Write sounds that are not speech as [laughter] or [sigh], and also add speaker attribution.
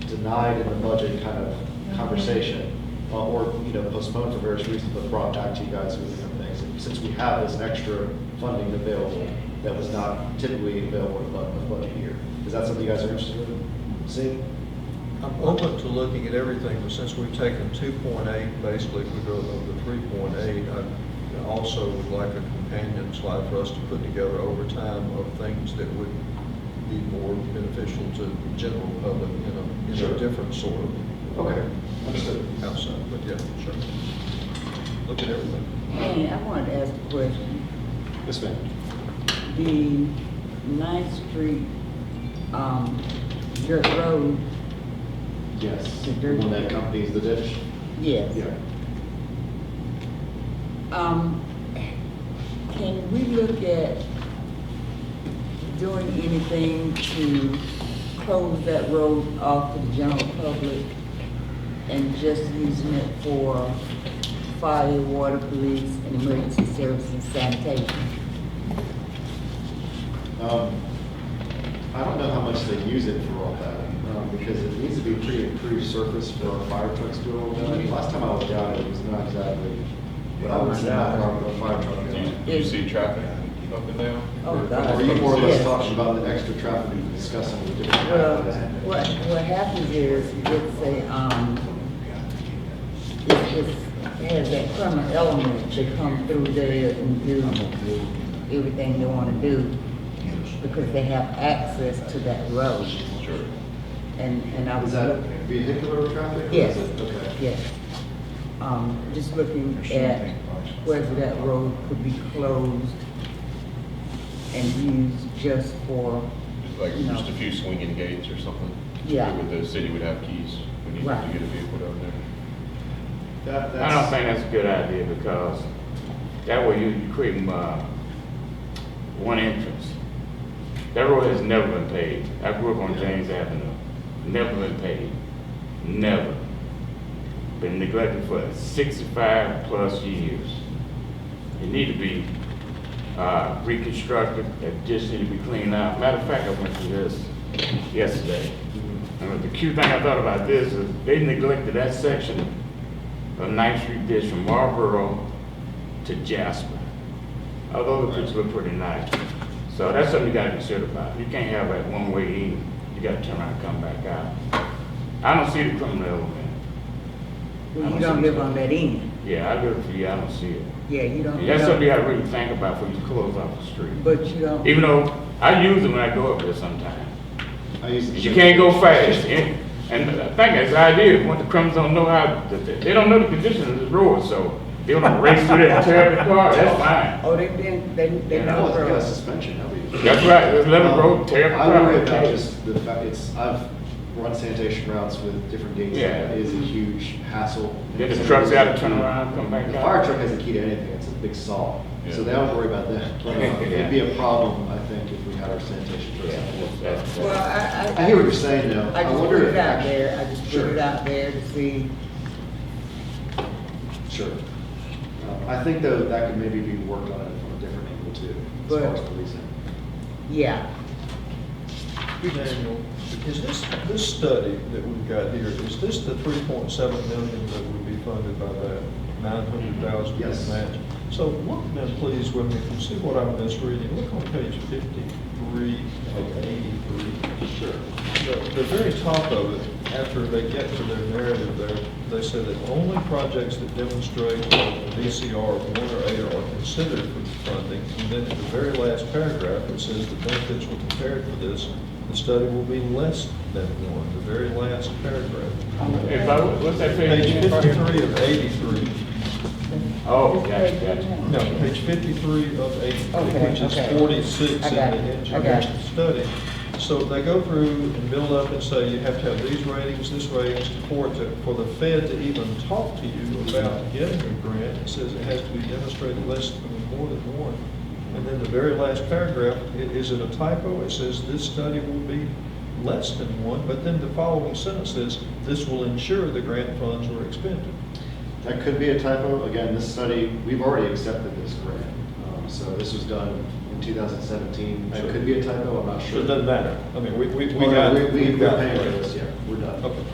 Speaker 1: denied in the budget kind of conversation, uh, or, you know, postponed for various reasons, but brought back to you guys with different things. And Since we have this extra funding available that was not typically available in the bu- in the budget year, is that something you guys are interested in seeing?
Speaker 2: I'm open to looking at everything, but since we've taken two point eight, basically, if we go over to three point eight, I also would like a companion slide for us to put together over time of things that would be more beneficial to the general public in a, in
Speaker 1: Sure.
Speaker 2: a different sort of.
Speaker 1: Okay, understood.
Speaker 2: Outside, but yeah, sure. Look at everything.
Speaker 3: Hey, I wanted to ask a question.
Speaker 1: Yes, ma'am.
Speaker 3: The Ninth Street, um, dirt road,
Speaker 1: Yes. When that accompanies the ditch?
Speaker 3: yes.
Speaker 1: Yeah.
Speaker 3: Um, can we look at doing anything to close that road off to the general public and just using it for fire, water, police, and emergency services and sanitation?
Speaker 1: Um, I don't know how much they use it for all that, um, because it needs to be pretty improved surface for our fire trucks to do all that. Last time I was down, it was not exactly, what I would say, not a fire truck.
Speaker 4: Do you- do you see traffic up and down?
Speaker 3: Oh, God.
Speaker 1: Are you more or less
Speaker 3: Yes.
Speaker 1: talking about the extra traffic we discussing with different?
Speaker 3: Well,
Speaker 1: companies?
Speaker 3: what, what happens is, it's a, um, it's, it's, it has that criminal element to come through there and do everything they wanna do, because they have access to that road,
Speaker 4: Sure.
Speaker 3: and, and I
Speaker 1: Is
Speaker 3: was.
Speaker 1: that
Speaker 3: look-
Speaker 1: vehicular traffic? or is
Speaker 3: Yes,
Speaker 1: it- Okay.
Speaker 3: yes. Um, just looking at whether that road could be closed and used just for,
Speaker 4: Just Like,
Speaker 3: No.
Speaker 4: just a few swinging gates or something?
Speaker 3: Yeah.
Speaker 4: With the city would have keys, we need to
Speaker 3: Right.
Speaker 4: get a vehicle down there.
Speaker 1: That,
Speaker 5: I don't
Speaker 1: that's,
Speaker 5: think that's a good idea because that way you you create, uh, one entrance. That road has never been paved. I grew up on James Avenue, never been paved, never. Been neglected for sixty-five plus years. It need to be, uh, reconstructed, it just need to be cleaned out. Matter of fact, I went through this yesterday. And the cute thing I thought about this is they neglected that section of Ninth Street Ditch from Marlboro to Jasper. Although the pictures look pretty nice. So that's something you gotta consider about. You can't have that one way in. You gotta turn around and come back out. I don't see the criminal element.
Speaker 3: well, you don't live on that end,
Speaker 5: Yeah, I live for you, I don't see it.
Speaker 3: yeah, you don't. you
Speaker 5: And that's
Speaker 3: don't-
Speaker 5: something you gotta really think about before you close off the street.
Speaker 3: But you don't.
Speaker 5: Even though I use it when I go up there sometimes.
Speaker 1: I use. the-
Speaker 5: You can't go fast. And, and the thing is, the idea is, when the criminals don't know how, they don't know the conditions of the road, so they don't race through that terrible car, that's fine.
Speaker 3: Oh, they been, they, they
Speaker 5: Yeah,
Speaker 1: I
Speaker 3: know
Speaker 1: was- I got a
Speaker 3: girls.
Speaker 1: suspension, that'd be.
Speaker 5: That's right, there's eleven road, terrible
Speaker 1: Um, I
Speaker 5: car.
Speaker 1: worry about just the fact, it's, I've run sanitation routes with different gates,
Speaker 5: Yeah.
Speaker 1: and it is a huge hassle.
Speaker 5: Then the trucks out, turn around, come back
Speaker 1: The
Speaker 5: out.
Speaker 1: fire truck has a key to anything, it's a big saw, so
Speaker 4: Yeah.
Speaker 1: they don't worry about
Speaker 5: [laughs]
Speaker 1: that. But, uh, It'd be a problem, I think, if we had our sanitation
Speaker 5: Yeah,
Speaker 1: trucks.
Speaker 5: that's-
Speaker 3: Well,
Speaker 5: that's-
Speaker 3: I,
Speaker 1: I
Speaker 3: I,
Speaker 1: hear what you're saying, though.
Speaker 3: I just
Speaker 1: wonder
Speaker 3: put
Speaker 1: if
Speaker 3: it out
Speaker 1: actu-
Speaker 3: there, I just put
Speaker 1: Sure.
Speaker 3: it out there to see,
Speaker 1: Sure. Um, I think, though, that could maybe be worked on it from a different angle, too, as far
Speaker 3: But-
Speaker 1: as policing.
Speaker 3: yeah.
Speaker 2: Daniel, is this, this study that we've got here, is this the three point seven million that would be funded by that nine hundred thousand
Speaker 1: Yes.
Speaker 2: match? So look now, please, with me, if you see what I'm misreading, look on page fifty-three of eighty-three.
Speaker 1: Sure.
Speaker 2: The, the very top of it, after they get to their narrative there, they say that only projects that demonstrate a VCR of one or eight are considered for funding. And then at the very last paragraph, it says the benefits were compared for this, the study will be less than one, the very last paragraph.
Speaker 5: If I, what's that
Speaker 2: Page
Speaker 5: page?
Speaker 2: fifty-three of eighty-three,
Speaker 5: Oh, gotcha, gotcha.
Speaker 2: no, page fifty-three of eighty-three,
Speaker 3: Okay,
Speaker 2: which is
Speaker 3: okay.
Speaker 2: forty-six in
Speaker 3: I
Speaker 2: the
Speaker 3: got it, I got
Speaker 2: engineering
Speaker 3: it.
Speaker 2: study. So they go through and build up and say, you have to have these ratings, this ratings, for it to, for the Fed to even talk to you about getting a grant. It says it has to be demonstrated less than, more than one. And then the very last paragraph, i- is it a typo? It says this study will be less than one, but then the following sentence says, this will ensure the grant funds were expended.
Speaker 1: That could be a typo. Again, this study, we've already accepted this grant. Um, So this was done in 2017. It could be a typo, I'm not
Speaker 2: So
Speaker 1: sure.
Speaker 2: it doesn't matter. I mean, we, we, we
Speaker 1: Well, no,
Speaker 2: got.
Speaker 1: We, we-
Speaker 2: we've
Speaker 1: we're
Speaker 2: got-
Speaker 1: paying for this, yeah, we're done. done.
Speaker 2: Okay.